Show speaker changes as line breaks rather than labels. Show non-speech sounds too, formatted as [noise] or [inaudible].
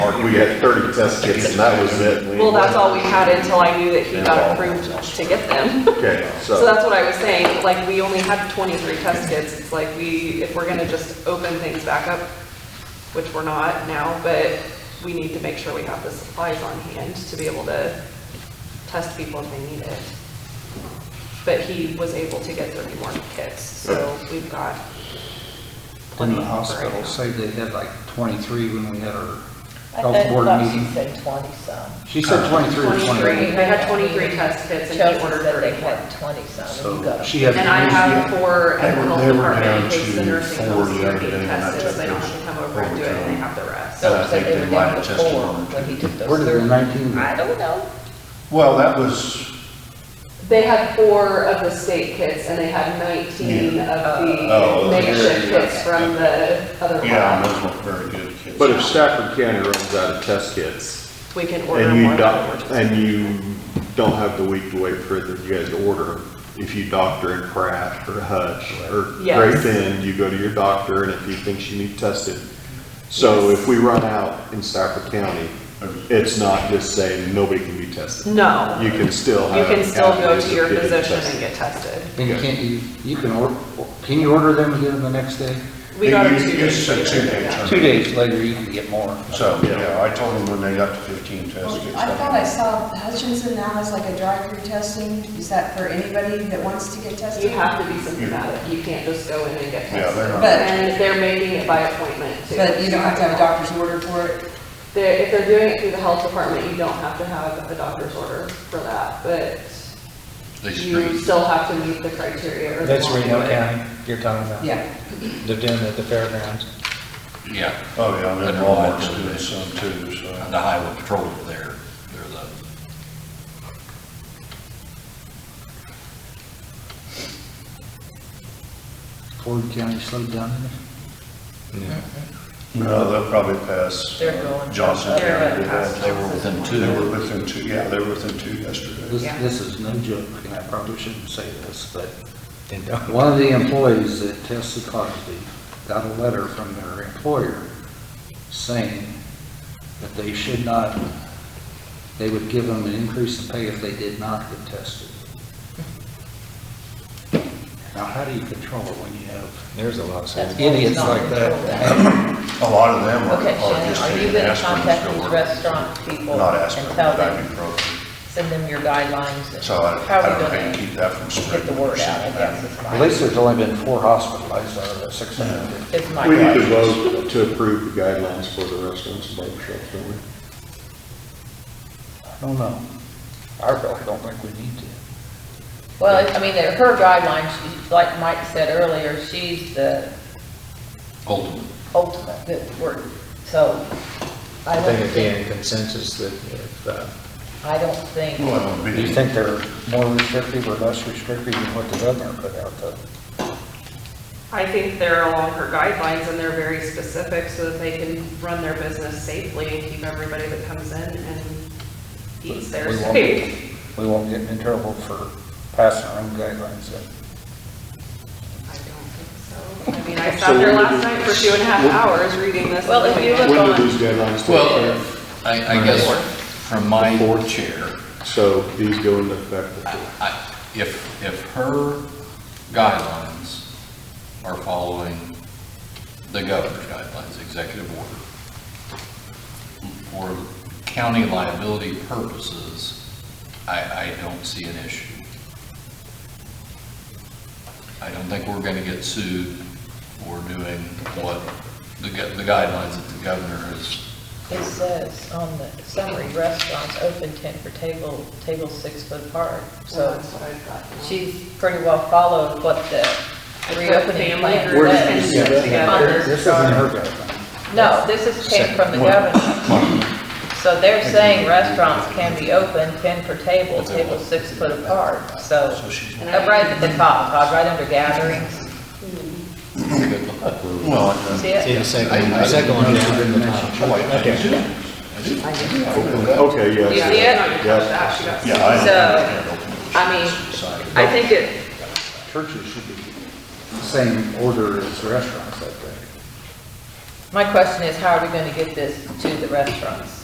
we had thirty test kits and that was it. We-
Well, that's all we had until I knew that he got approved to get them. [laughs]
Okay,
So
so,
that's what I was saying, like, we only had twenty-three test kits, it's like we, if we're gonna just open things back up, which we're not now, but we need to make sure we have the supplies on hand to be able to test people if they need it. But he was able to get thirty more kits, so we've got plenty
Didn't
for
the
right
hospital
now.
say they had like 23 when we had our
I
health board
thought she
meeting?
said twenty-some.
She said 23 or
23,
28.
I had 23 test kits and
Chelsea
he ordered
said they
31.
had twenty-some, and
So
you got
she
them.
has.
And I have four
They
at the
were-
health
they were
department in
down
case the
to
nursing
four
homes
the
are
other day
getting
when I
tested,
checked
so they don't
those
have to come over and do it,
overtime.
and they have the rest.
So said they
they
were
might
down
have
to
tested
four
one or
when he took those.
Where did the
thirty.
19
I don't know.
Well, that was,
They had four of the state kits and they had 19 of
Oh, those
the
are good,
makeshift
yeah.
kits from the other
yeah,
lab.
those weren't very good kids.
but if Stafford County runs out of test kits
We can order
and you
more.
don't, and you don't have the week to wait for it, then you guys order. If you doctor in Pratt or Hutch or
Yes.
Great Bend, you go to your doctor and if he thinks you need tested. So if we run out in Stafford County, it's not just saying nobody can be tested.
No,
You uh,
you
can still have.
can still go
avenues
to
of
your
getting
physician and
tested.
get tested.
And you can't, you, you can order, can you order them and get them the next day?
We got
You-
them two
you
days.
said two days, huh?
Two days later, you can get more.
So, yeah, I told them when they got to fifteen test kits.
I thought I saw Hutchinson now has like a drive-through testing. Is that for anybody that wants to get tested?
You have to be symptomatic, you can't just go in and get
Yeah, they're
tested.
not-
And they're making it by appointment too.
But you don't have to have a doctor's order for it?
They're, if they're doing it through the health department, you don't have to have a doctor's order for that, but
They
you
screen.
still have to meet the criteria. or they
That's
won't do
Reno
it.
County you're talking about?
Yeah.
They're doing it at the fairgrounds.
Yeah,
Oh, yeah, and then Walmart's doing some too, so.
the highway patrol over there, they're the,
Ford County slowed down.
No, they'll probably pass
They're going-
Johnson
they're
County.
gonna pass
they were within two.
They were within two, yeah, they were within two yesterday.
This, this is no joke, and I probably shouldn't say this, but one of the employees that tested positive got a letter from their employer saying that they should not, they would give them an increase in pay if they did not get tested. Now, how do you control it when you have
There's a lot
That's
of.
why we
idiots
don't
like
control
that?
A lot of them are
Okay,
are
Shannon,
just
are you
taking
gonna
aspirin to
contact
go
these
work.
restaurant people
Not
and
aspirin,
tell
but
them,
ibuprofen.
send them your guidelines? and
So I,
how
I
we
don't know
gonna
how you keep that from
Get
spreading.
the word out, I guess is
At
my,
least there's only been four hospitalized out of the 650.
is my.
We need to
thought.
vote to approve the guidelines for the restaurants and barbershops, don't we?
I don't know. I really don't think we need to.
Well, I mean, they're- her guidelines, she- like Mike said earlier, she's the
ultimate.
ultimate good word. So I
I
don't
think
think,
again, consensus that if, uh,
I don't think,
Well, it'll
Do
be-
you think they're more restrictive or less restrictive than what the governor put out though?
I think they're along her guidelines and they're very specific so that they can run their business safely and keep everybody that comes in and eats there
We won't-
safe.
We won't get in trouble for passing our own guidelines then.
I don't think so. I mean, I
So
sat there
when we
last
do-
night for two and a half
when-
hours reading this.
Well, if you
and going,
look-
When do these guidelines take
Well,
effect?
I, I guess from my board chair,
So these go into effect before.
I, if, if her guidelines are following the governor's guidelines, executive order, for county liability purposes, I, I don't see an issue. I don't think we're gonna get sued for doing what the, gu- the guidelines that the governor has
it says on the summary, restaurants open tent for table, table six foot apart.
Well,
So
that's what I've got now.
she's pretty well followed what the reopening
Family
plan
group
says.
and sit
On
together.
this
This isn't
chart.
her guideline.
No, this is came from the governor. So they're saying restaurants can be open, 10 per table, table six foot apart, so, up right at the top, Todd, right under gatherings.
Well, I-
See it?
see the second, the second one down in the top.
I like that.
Okay,
You see
yes.
No, you
it?
touched that, she got-
Yeah, I understand.
So, I mean, I think it,
Churches should be the same order as restaurants, I think.
My question is, how are we gonna get this to the restaurants?